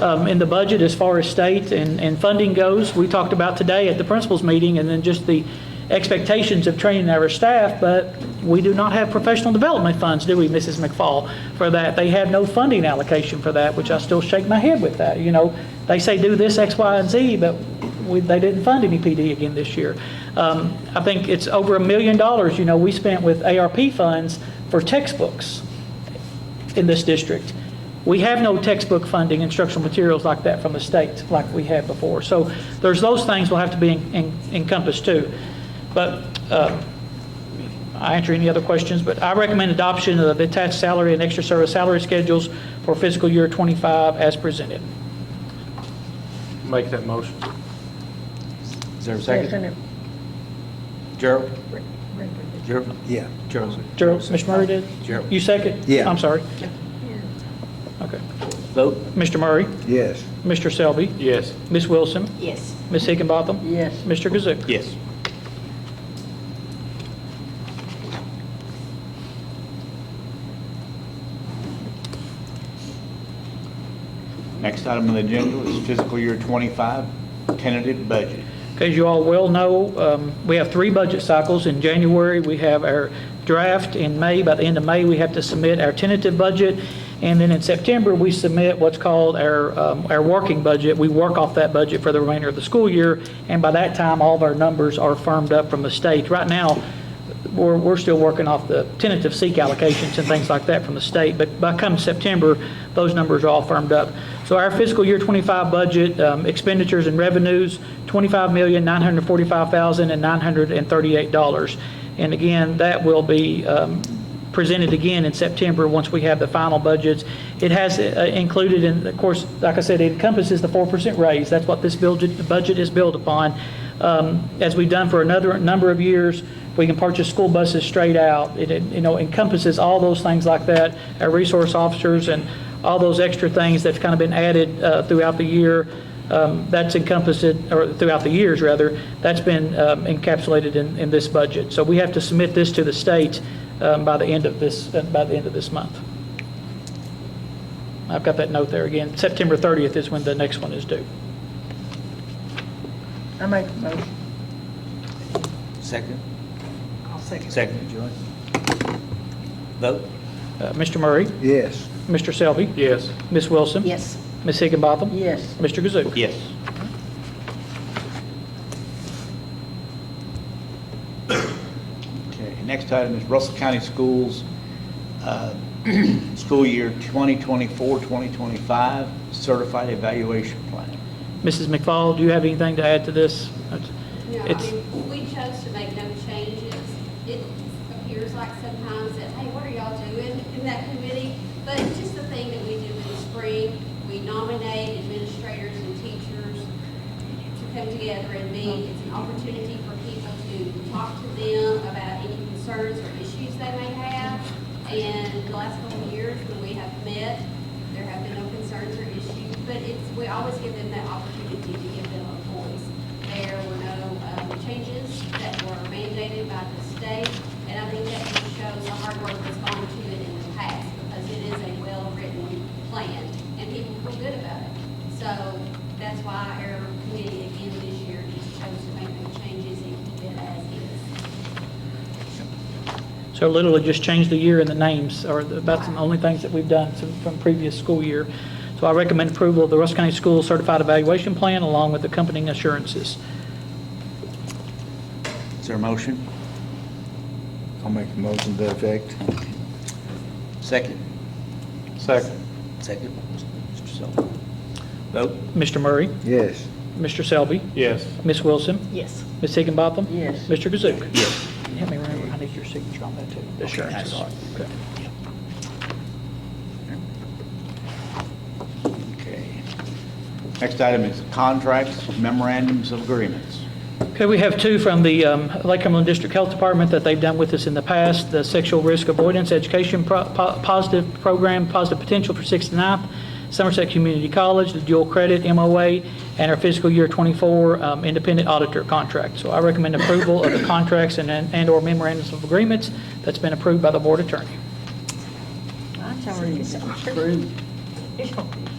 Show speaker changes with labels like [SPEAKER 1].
[SPEAKER 1] um, in the budget as far as state and, and funding goes. We talked about today at the principals meeting, and then just the expectations of training our staff, but we do not have professional development funds, do we, Mrs. McFall, for that? They have no funding allocation for that, which I still shake my head with that, you know? They say do this, X, Y, and Z, but we, they didn't fund any PD again this year. Um, I think it's over a million dollars, you know, we spent with ARP funds for textbooks in this district. We have no textbook funding, instructional materials like that from the state, like we had before. So there's those things will have to be en- en- encompassed too. But uh, I answer any other questions, but I recommend adoption of the attached salary and extra service salary schedules for fiscal year 25 as presented.
[SPEAKER 2] Make that motion.
[SPEAKER 3] Is there a second? Gerald? Gerald? Yeah. Gerald.
[SPEAKER 1] Gerald, Mr. Murray did?
[SPEAKER 3] Gerald.
[SPEAKER 1] You second?
[SPEAKER 3] Yeah.
[SPEAKER 1] I'm sorry. Okay.
[SPEAKER 3] Vote?
[SPEAKER 1] Mr. Murray,
[SPEAKER 3] Yes.
[SPEAKER 1] Mr. Selby,
[SPEAKER 2] Yes.
[SPEAKER 1] Ms. Wilson,
[SPEAKER 4] Yes.
[SPEAKER 1] Ms. Higginbotham,
[SPEAKER 4] Yes.
[SPEAKER 1] Mr. Kazook.
[SPEAKER 3] Yes. Next item on the agenda is fiscal year 25 tentative budget.
[SPEAKER 1] As you all well know, um, we have three budget cycles. In January, we have our draft. In May, by the end of May, we have to submit our tentative budget. And then in September, we submit what's called our, um, our working budget. We work off that budget for the remainder of the school year. And by that time, all of our numbers are firmed up from the state. Right now, we're, we're still working off the tentative seek allocations and things like that from the state, but by come September, those numbers are all firmed up. So our fiscal year 25 budget um, expenditures and revenues, $25,945,938. And again, that will be um, presented again in September, once we have the final budgets. It has uh, included, and of course, like I said, it encompasses the 4% raise. That's what this budget, budget is built upon. Um, As we've done for another number of years, we can purchase school buses straight out. It, it, you know, encompasses all those things like that, our resource officers and all those extra things that's kind of been added uh, throughout the year. Um, That's encompassed, or throughout the years, rather, that's been um, encapsulated in, in this budget. So we have to submit this to the state um, by the end of this, uh, by the end of this month. I've got that note there again. September 30th is when the next one is due.
[SPEAKER 4] I make a motion.
[SPEAKER 3] Second?
[SPEAKER 4] I'll second.
[SPEAKER 3] Second, Joy. Vote?
[SPEAKER 1] Uh, Mr. Murray,
[SPEAKER 3] Yes.
[SPEAKER 1] Mr. Selby,
[SPEAKER 2] Yes.
[SPEAKER 1] Ms. Wilson.
[SPEAKER 4] Yes.
[SPEAKER 1] Ms. Higginbotham.
[SPEAKER 4] Yes.
[SPEAKER 1] Mr. Kazook.
[SPEAKER 3] Yes. Okay, next item is Russell County Schools, uh, school year 2024-2025 certified evaluation plan.
[SPEAKER 1] Mrs. McFall, do you have anything to add to this?
[SPEAKER 5] No, I
[SPEAKER 1] It's-
[SPEAKER 5] mean, we chose to make no changes. It appears like sometimes that, hey, what are y'all doing in that committee? But it's just the thing that we do in the spring, we nominate administrators and teachers to come together and meet. It's an opportunity for people to talk to them about any concerns or issues they may have. And the last couple of years when we have met, there have been no concerns or issues, but it's, we always give them that opportunity to give them a voice. There were no um, changes that were mandated by the state, and I think that just shows the hard work that's gone to it in the past, because it is a well-written plan, and people feel good about it. So that's why our committee again this year just chose to make no changes and keep it as is.
[SPEAKER 1] So literally just change the year and the names are about the only things that we've done from- from previous school year. So I recommend approval of the Russell County School Certified Evaluation Plan along with accompanying assurances.
[SPEAKER 3] Is there a motion?
[SPEAKER 6] I'll make a motion to that effect.
[SPEAKER 3] Second?
[SPEAKER 2] Second.
[SPEAKER 3] Second. Mr. Sullivan. Vote?
[SPEAKER 1] Mr. Murray,
[SPEAKER 6] Yes.
[SPEAKER 1] Mr. Selby,
[SPEAKER 2] Yes.
[SPEAKER 1] Ms. Wilson,
[SPEAKER 4] Yes.
[SPEAKER 1] Ms. Higginbotham.
[SPEAKER 4] Yes.
[SPEAKER 1] Mr. Kazook. Yes. Help me remember, I need your signature on that too. Assurances. Okay.
[SPEAKER 3] Okay. Next item is contracts, memorandums of agreements.
[SPEAKER 1] Okay, we have two from the um, Lake Cumberland District Health Department that they've done with us in the past, the Sexual Risk Avoidance Education Pro- Po- Positive Program, Positive Potential for 69th, Somerset Community College, the Dual Credit MOA, and our fiscal year 24 um, Independent Auditor Contract. So I recommend approval of the contracts and- and/or memorandums of agreements that's been approved by the Board Attorney.
[SPEAKER 4] That's already approved.